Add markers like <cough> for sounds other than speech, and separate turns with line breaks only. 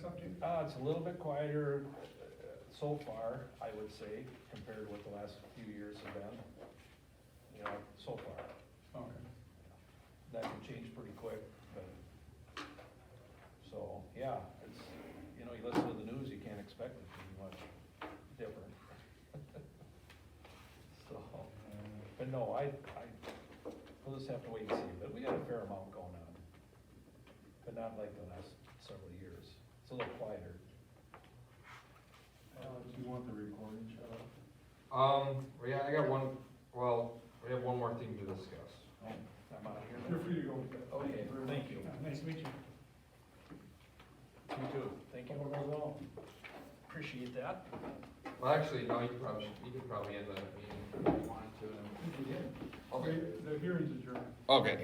subject, uh, it's a little bit quieter uh, so far, I would say, compared to what the last few years have been. You know, so far,
Okay.
that can change pretty quick, but. So, yeah, it's, you know, you listen to the news, you can't expect it to be much different. <laughs> So, but no, I, I, we'll just have to wait and see, but we got a fair amount going on. But not like the last several years, it's a little quieter.
Alex, Uh, you want the recording shut off?
Um, well, yeah, I got one, well, we have one more thing to discuss.
Oh, I'm out of here.
You're free to go.
Okay, Oh, thank you.
Nice to meet you.
You too. Thank you. Appreciate that.
Well, actually, no, you probably, should- you could probably end that meeting if you wanted to.
Thank you.
Okay.
The hearing's adjourned.
Okay,